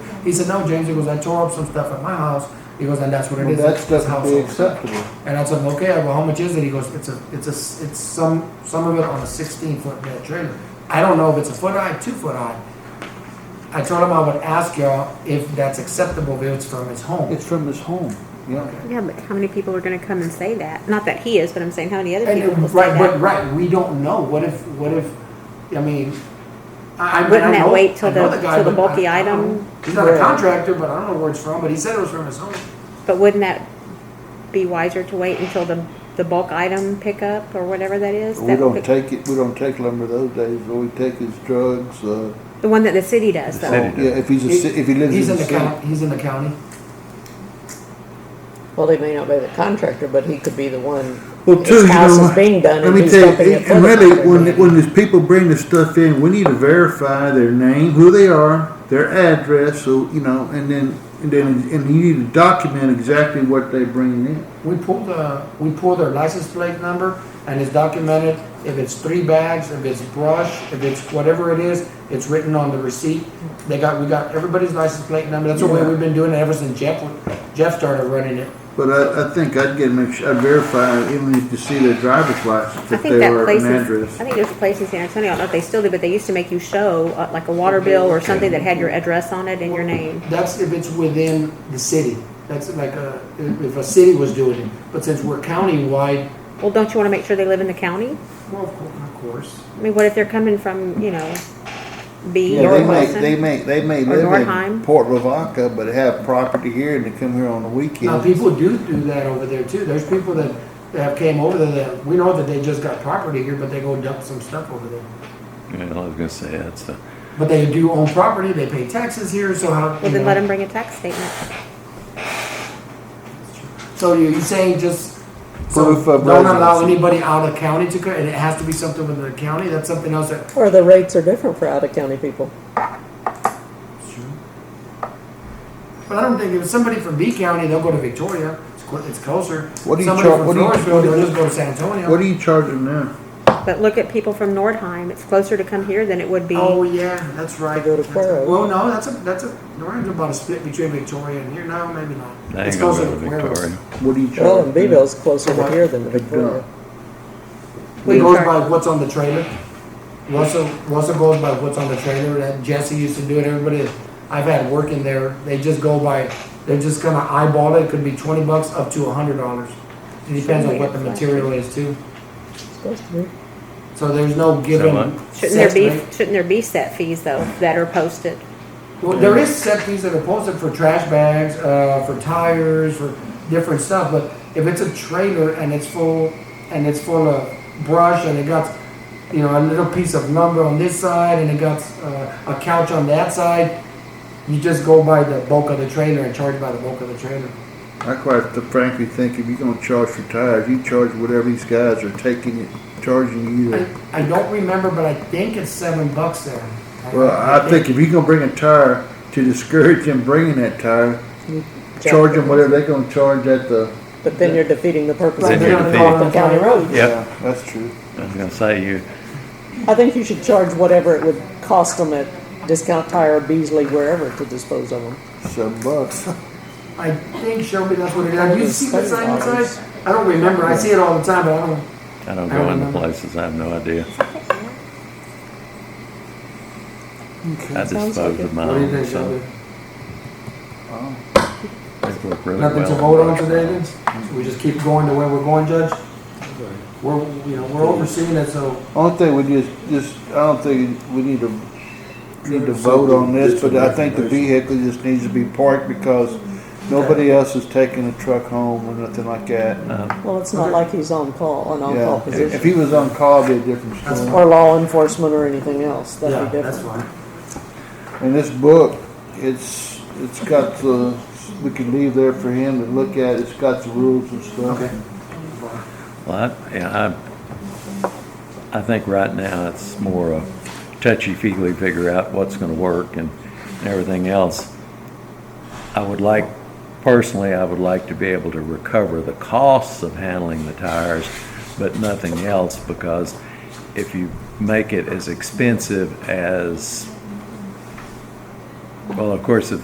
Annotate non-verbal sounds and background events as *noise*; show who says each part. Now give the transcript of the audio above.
Speaker 1: He said, no, James, he goes, I tore up some stuff at my house. He goes, and that's what it
Speaker 2: Well,
Speaker 1: is.
Speaker 2: That's
Speaker 1: It's
Speaker 2: definitely
Speaker 1: household."
Speaker 2: acceptable.
Speaker 1: And I told him, okay, well, how much is it? He goes, it's a, it's a, s- it's some, some of it on a sixteen foot bed trailer. I don't know if it's a foot high, two foot high. I told him I would ask y'all if that's acceptable, if it's from his home.
Speaker 2: It's from his home, yeah.
Speaker 3: Yeah, but how many people are gonna come and say that? Not that he is, but I'm saying how many other
Speaker 1: And uh,
Speaker 3: people will say
Speaker 1: right, but
Speaker 3: that?
Speaker 1: right, we don't know. What if, what if, I mean, I, I mean, I
Speaker 3: Wouldn't that
Speaker 1: know-
Speaker 3: wait till
Speaker 1: I know
Speaker 3: the-
Speaker 1: guy,
Speaker 3: till the
Speaker 1: but I-
Speaker 3: bulky
Speaker 1: I don't-
Speaker 3: item?
Speaker 1: He's not a
Speaker 2: Yeah.
Speaker 1: contractor, but I don't know where it's from, but he said it was from his home.
Speaker 3: But wouldn't that be wiser to wait until the, the bulk item pickup or whatever that is?
Speaker 2: We
Speaker 3: That
Speaker 2: don't
Speaker 3: pick-
Speaker 2: take it, we don't take lumber those days, all we take is drugs, uh,
Speaker 3: The one that the city does
Speaker 4: The
Speaker 3: though.
Speaker 4: city.
Speaker 2: yeah, if he's a, ci- if he lives
Speaker 1: He's
Speaker 2: in the city.
Speaker 1: county. He's in the county.
Speaker 5: Well, he may not be the contractor, but he could be the one.
Speaker 6: Well, too,
Speaker 5: His
Speaker 6: you
Speaker 5: house
Speaker 6: know,
Speaker 5: is being done
Speaker 6: let
Speaker 5: and
Speaker 6: me
Speaker 5: he's
Speaker 6: tell you,
Speaker 5: dumping it for
Speaker 6: and
Speaker 5: the
Speaker 6: really,
Speaker 5: contractor.
Speaker 6: when, when these people bring this stuff in, we need to verify their name, who they are, their address, so, you know, and then, and then, and you need to document exactly what they bring in.
Speaker 1: We pull the, we pull their license plate number and it's documented, if it's three bags, if it's brush, if it's whatever it is, it's written on the receipt. They got, we got everybody's license plate number, that's the way
Speaker 6: Yeah.
Speaker 1: we've been doing it ever since Jeff, Jeff started running it.
Speaker 6: But I, I think I'd get, make sure, I'd verify, even if you see their driver's license,
Speaker 3: I
Speaker 6: if
Speaker 3: think
Speaker 6: they
Speaker 3: that
Speaker 6: are an
Speaker 3: places, I
Speaker 6: address.
Speaker 3: think there's a place in San Antonio, I don't know if they still do, but they used to make you show uh, like a water bill or something that had your address on it and your name.
Speaker 1: That's if it's within the city, that's like a, if if a city was doing it, but since we're countywide,
Speaker 3: Well, don't you wanna make sure they live in the county?
Speaker 1: well, of cour- of course.
Speaker 3: I mean, what if they're coming from, you know, B
Speaker 2: Yeah,
Speaker 3: or
Speaker 2: they may,
Speaker 3: Wilson?
Speaker 2: they may, they may
Speaker 3: Or
Speaker 2: live in
Speaker 3: Norheim.
Speaker 2: Port Lavaca, but have property here and they come here on the
Speaker 1: Now,
Speaker 2: weekend.
Speaker 1: people do do that over there too, there's people that, that have came over there that, we know that they just got property here, but they go dump some stuff over there.
Speaker 4: Yeah, I was gonna say, that's the,
Speaker 1: But they do own property, they pay taxes here, so how?
Speaker 3: Well,
Speaker 1: you
Speaker 3: then
Speaker 1: know.
Speaker 3: let them bring a tax statement.
Speaker 1: So you're saying just, so
Speaker 2: Proof of
Speaker 1: don't allow
Speaker 2: residency.
Speaker 1: anybody out of county to, co- and it has to be something within the county, that's something else that.
Speaker 5: Or the rates are different for out-of-county people.
Speaker 1: But I don't think, if it's somebody from B County, they'll go to Victoria, it's clo- it's closer.
Speaker 2: What do you
Speaker 1: Somebody
Speaker 2: char-
Speaker 1: from
Speaker 2: what do you-
Speaker 1: Floresville,
Speaker 2: what do
Speaker 1: they'll
Speaker 2: you-
Speaker 1: just go to San Antonio.
Speaker 6: What are you charging now?
Speaker 3: But look at people from Nordheim. It's closer to come here than it would be.
Speaker 1: Oh, yeah, that's right.
Speaker 5: They go to
Speaker 1: That's-
Speaker 5: Cuero.
Speaker 1: Well, no, that's a, that's a, Norton's about a split between Victoria and here, no, maybe not.
Speaker 4: they
Speaker 1: It's
Speaker 4: ain't gonna
Speaker 1: closer
Speaker 4: go to
Speaker 1: Cuero.
Speaker 4: Victoria.
Speaker 6: What are you charging?
Speaker 5: Well, and
Speaker 6: now?
Speaker 5: Beeville's closer to here than to
Speaker 6: They
Speaker 5: Victoria.
Speaker 6: don't.
Speaker 3: We
Speaker 1: It goes
Speaker 3: charge-
Speaker 1: by what's on the trailer. Russell, Russell goes by what's on the trailer, that Jesse used to do it, everybody, I've had work in there, they just go by, they're just gonna eyeball it, it could be twenty bucks up to a hundred dollars. It depends on what the material is too,
Speaker 5: It's supposed to be.
Speaker 1: so there's no given.
Speaker 4: much?
Speaker 3: Shouldn't there
Speaker 1: set
Speaker 3: be,
Speaker 1: rate.
Speaker 3: shouldn't there be set fees though that are posted?
Speaker 1: Well, there is set fees that are posted for trash bags, uh, for tires, for different stuff, but if it's a trailer and it's full, and it's full of brush and it got, you know, a little piece of lumber on this side and it got, uh, a couch on that side, you just go by the bulk of the trailer and charge by the bulk of the trailer.
Speaker 6: I quite frankly think if you're gonna charge for tires, you charge whatever these guys are taking it, charging you.
Speaker 1: I,
Speaker 6: the-
Speaker 1: I don't remember, but I think it's seven bucks there.
Speaker 6: Well, I think if you're gonna bring a tire to discourage them bringing that tire, charge them whatever they're gonna charge at the.
Speaker 5: But then you're defeating the purpose
Speaker 4: Then
Speaker 5: of
Speaker 4: you're
Speaker 5: the
Speaker 4: defeating-
Speaker 5: county road.
Speaker 4: Yep.
Speaker 2: Yeah, That's true.
Speaker 4: I was gonna say, you,
Speaker 5: I think you should charge whatever it would cost them at Discount Tire, Beasley, wherever to dispose of them.
Speaker 2: Seven bucks. *laughs*
Speaker 1: I think Shelby, that's what it is. Have you seen the sign
Speaker 5: Seven dollars.
Speaker 1: inside? I don't remember, I see it all the time, but I don't.
Speaker 4: I don't
Speaker 1: I
Speaker 4: go into
Speaker 1: remember.
Speaker 4: places, I have no idea. I
Speaker 5: Sounds like
Speaker 4: dispose
Speaker 5: it.
Speaker 4: of my
Speaker 1: What do you
Speaker 4: own,
Speaker 1: think,
Speaker 4: so.
Speaker 1: Shelby?
Speaker 2: Oh.
Speaker 4: They work really
Speaker 1: Nothing to
Speaker 4: well. uh,
Speaker 1: vote on today then? So we just keep going the way we're going, Judge? We're, you know, we're overseeing it, so
Speaker 2: Only thing we just, just, I don't think we need to, need to vote on this, but I think the vehicle just needs to be parked because nobody else is taking a truck home or nothing like that.
Speaker 5: Well, it's not like he's on call, an on-call
Speaker 2: Yeah,
Speaker 5: position.
Speaker 2: if he was on call, it'd be a different story.
Speaker 5: Or law enforcement or anything else,
Speaker 1: yeah,
Speaker 5: that'd be
Speaker 1: that's
Speaker 5: different.
Speaker 1: fine.
Speaker 2: And this book, it's, it's got the, we can leave there for him to look at, it's got the rules and stuff.
Speaker 1: Okay.
Speaker 4: Well, I, yeah, I, I think right now it's more a touchy-feely figure out what's gonna work and everything else. I would like, personally, I would like to be able to recover the costs of handling the tires, but nothing else, because if you make it as expensive as, well, of course, if